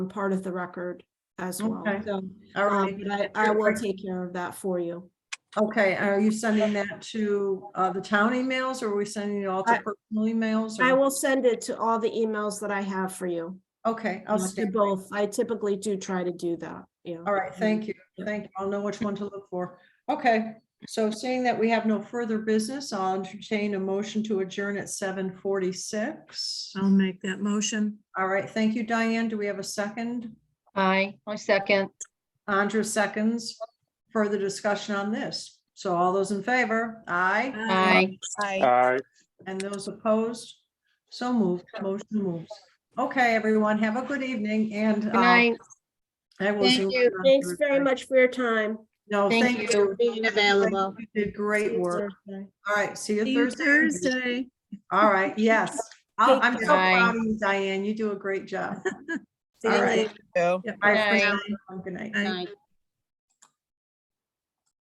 part of the record as well. Okay. So, All um, right. but I, I will take care of that for you. Um, Okay, are you sending that to uh, the town emails or are we sending it all to I- personal emails? I or- will send it to all the emails that I have for you. Okay, uh, I'll To stand. both. I typically do try to do that, yeah. Mm-hmm. All right, thank you. Yeah. Thank you. I'll know which one to look for. Okay, so seeing that we have no further business, I'll entertain a motion to adjourn at seven forty-six. Um. I'll make that motion. All right, thank you, Diane. Do we have a second? Aye, I second. Andrew seconds. Further discussion on this. So all those in favor? Aye. Aye. Aye. And those opposed? So moved, motion moves. Okay, everyone, have a good evening and. uh, Good night. I will. Thank zoom you. in on Thanks very everybody. much for your time. No, Thank thank you. you. Being available. You did great See you work. Thursday. All right, see See you you Thursday. Thursday. All right, yes. I'll- Take I'm so care. proud of you, Diane. You do a great job. See you All later. right. So. Bye for Bye. now. Good night. Bye.